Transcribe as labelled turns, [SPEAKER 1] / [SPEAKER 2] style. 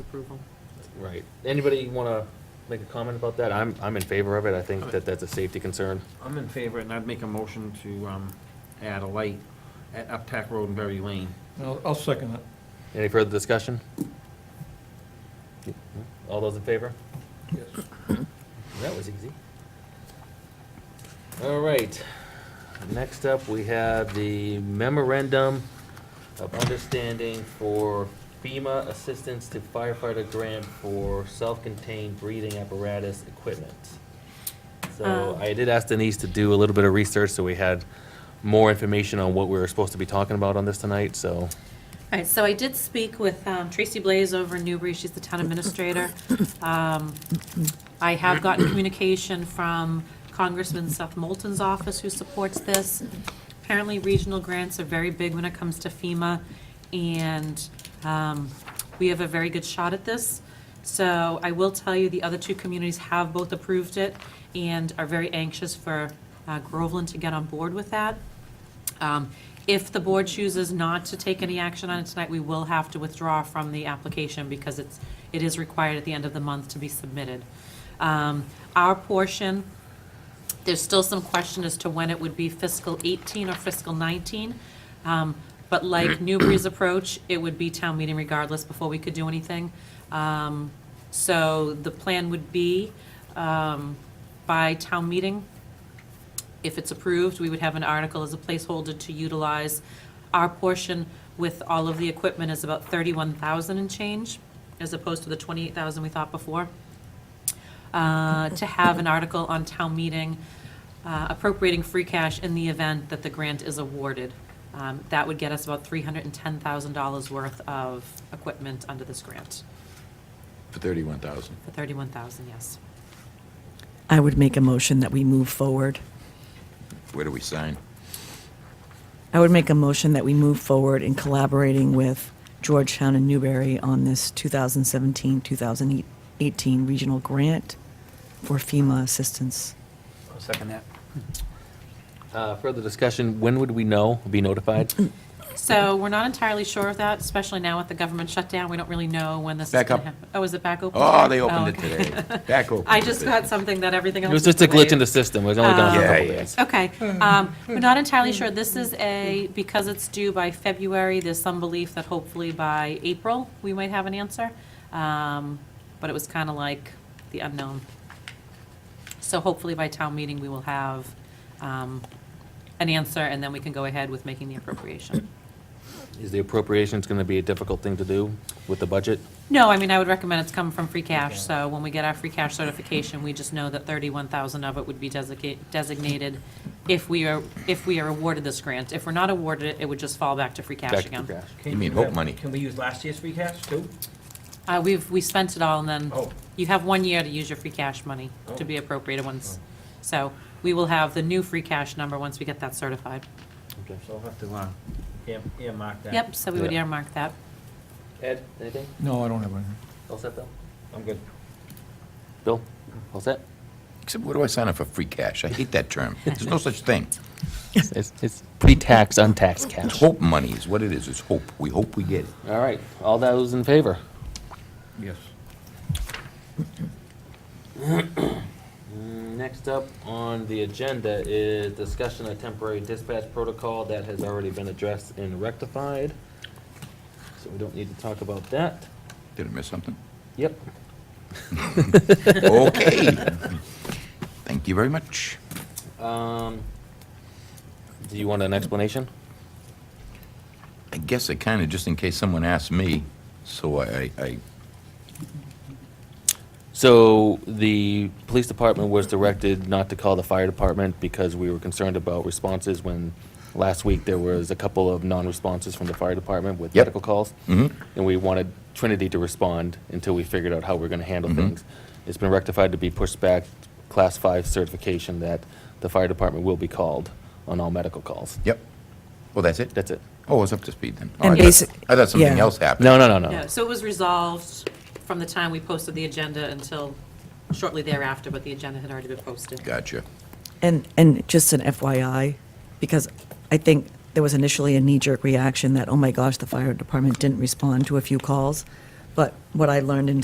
[SPEAKER 1] approval.
[SPEAKER 2] Right. Anybody want to make a comment about that? I'm, I'm in favor of it. I think that that's a safety concern.
[SPEAKER 3] I'm in favor, and I'd make a motion to um, add a light at Uptack Road and Berry Lane.
[SPEAKER 4] I'll, I'll second that.
[SPEAKER 2] Any further discussion? All those in favor?
[SPEAKER 4] Yes.
[SPEAKER 2] That was easy. All right. Next up, we have the memorandum of understanding for FEMA assistance to firefighter grant for self-contained breathing apparatus equipment. So
[SPEAKER 1] Um.
[SPEAKER 2] I did ask Denise to do a little bit of research, so we had more information on what we were supposed to be talking about on this tonight, so.
[SPEAKER 1] All right, so I did speak with um, Tracy Blaze over in Newbury, she's the town administrator. Um, I have gotten communication from Congressman Seth Moulton's office, who supports this. Apparently, regional grants are very big when it comes to FEMA, and um, we have a very good shot at this. So I will tell you, the other two communities have both approved it and are very anxious for uh, Groveland to get on board with that. Um, If the board chooses not to take any action on it tonight, we will have to withdraw from the application because it's, it is required at the end of the month to be submitted. Um, Our portion, there's still some question as to when it would be fiscal 18 or fiscal 19. Um, But like Newbury's approach, it would be town meeting regardless before we could do anything. Um, So the plan would be um, by town meeting, if it's approved, we would have an article as a placeholder to utilize. Our portion with all of the equipment is about thirty-one thousand and change, as opposed to the twenty-eight thousand we thought before. Uh, to have an article on town meeting uh, appropriating free cash in the event that the grant is awarded. Um, That would get us about three hundred and ten thousand dollars worth of equipment under this grant,
[SPEAKER 5] For thirty-one thousand.
[SPEAKER 1] for thirty-one thousand, yes.
[SPEAKER 6] I would make a motion that we move forward.
[SPEAKER 5] Where do we sign?
[SPEAKER 6] I would make a motion that we move forward in collaborating with Georgetown and Newberry on this 2017-2018 regional grant for FEMA assistance.
[SPEAKER 3] I'll second that.
[SPEAKER 2] Uh, Further discussion, when would we know, be notified?
[SPEAKER 1] So we're not entirely sure of that, especially now with the government shutdown. We don't really know when this is going
[SPEAKER 5] Back
[SPEAKER 1] to
[SPEAKER 5] up.
[SPEAKER 1] happen. Oh, is it back open?
[SPEAKER 5] Oh, they opened it
[SPEAKER 1] okay.
[SPEAKER 5] today. Back open.
[SPEAKER 1] I just
[SPEAKER 5] today.
[SPEAKER 1] got something that everything
[SPEAKER 2] It
[SPEAKER 1] else.
[SPEAKER 2] was just a glitch in the
[SPEAKER 1] delayed.
[SPEAKER 2] system. It was only done for a
[SPEAKER 5] Yeah,
[SPEAKER 2] couple
[SPEAKER 5] yeah.
[SPEAKER 2] days.
[SPEAKER 1] Okay, um, we're not entirely sure. This is a, because it's due by February, there's some belief that hopefully by April, we might have an answer. Um, But it was kind of like the unknown. So hopefully by town meeting, we will have um, an answer, and then we can go ahead with making the appropriation.
[SPEAKER 2] Is the appropriations going to be a difficult thing to do with the budget?
[SPEAKER 1] No, I mean, I would recommend it's come from free cash, so when we get our free cash certification, we just know that thirty-one thousand of it would be desica- designated if we are, if we are awarded this grant. If we're not awarded it, it would just fall back to free
[SPEAKER 2] Back
[SPEAKER 1] cash
[SPEAKER 2] to
[SPEAKER 1] again.
[SPEAKER 2] cash.
[SPEAKER 5] You mean hope money.
[SPEAKER 3] Can we use last year's free cash, too?
[SPEAKER 1] Uh, we've, we spent it all, and then
[SPEAKER 3] Oh.
[SPEAKER 1] you have one year to use your free cash money to be appropriated once. So we will have the new free cash number once we get that certified.
[SPEAKER 2] Okay.
[SPEAKER 3] So I'll have to um, ear- earmark that.
[SPEAKER 1] Yep, so we would
[SPEAKER 2] Yeah.
[SPEAKER 1] earmark that.
[SPEAKER 2] Ed, anything?
[SPEAKER 4] No, I don't have anything.
[SPEAKER 2] All set, Bill?
[SPEAKER 3] I'm good.
[SPEAKER 2] Bill, all set?
[SPEAKER 5] Except where do I sign up for free cash? I hate that term. There's no such thing.
[SPEAKER 2] It's, it's pre-tax, untaxed
[SPEAKER 5] It's
[SPEAKER 2] cash. All
[SPEAKER 5] hope money is what it is. It's hope. We hope we get it.
[SPEAKER 2] right, all those in favor?
[SPEAKER 4] Yes.
[SPEAKER 2] Next up on the agenda is discussion of temporary dispatch protocol that has already been addressed and rectified. So we don't need to talk about that.
[SPEAKER 5] Did I miss something?
[SPEAKER 2] Yep.
[SPEAKER 5] Okay. Thank you very much.
[SPEAKER 2] Um, do you want an explanation?
[SPEAKER 5] I guess I kind of, just in case someone asks me, so I, I, I-
[SPEAKER 2] So the police department was directed not to call the fire department because we were concerned about responses when last week there was a couple of non-responses from the fire department with
[SPEAKER 5] Yep. Mm-hmm.
[SPEAKER 2] medical calls. And we wanted Trinity to respond until we figured out how we're gonna handle
[SPEAKER 5] Mm-hmm.
[SPEAKER 2] things. It's been rectified to be pushed back, class five certification that the fire department will be called on all medical calls.
[SPEAKER 5] yep. Well, that's it?
[SPEAKER 2] That's it.
[SPEAKER 5] Oh, I was up to speed then. Oh,
[SPEAKER 6] And
[SPEAKER 5] I thought-
[SPEAKER 6] basic-
[SPEAKER 5] I thought something
[SPEAKER 6] yeah.
[SPEAKER 5] else happened.
[SPEAKER 2] No, no, no, no.
[SPEAKER 1] Yeah, so it was resolved from the time we posted the agenda until shortly thereafter, but the agenda had already been posted.
[SPEAKER 5] Gotcha.
[SPEAKER 6] And, and just an FYI, because I think there was initially a knee-jerk reaction that, oh my gosh, the fire department didn't respond to a few calls. But what I learned in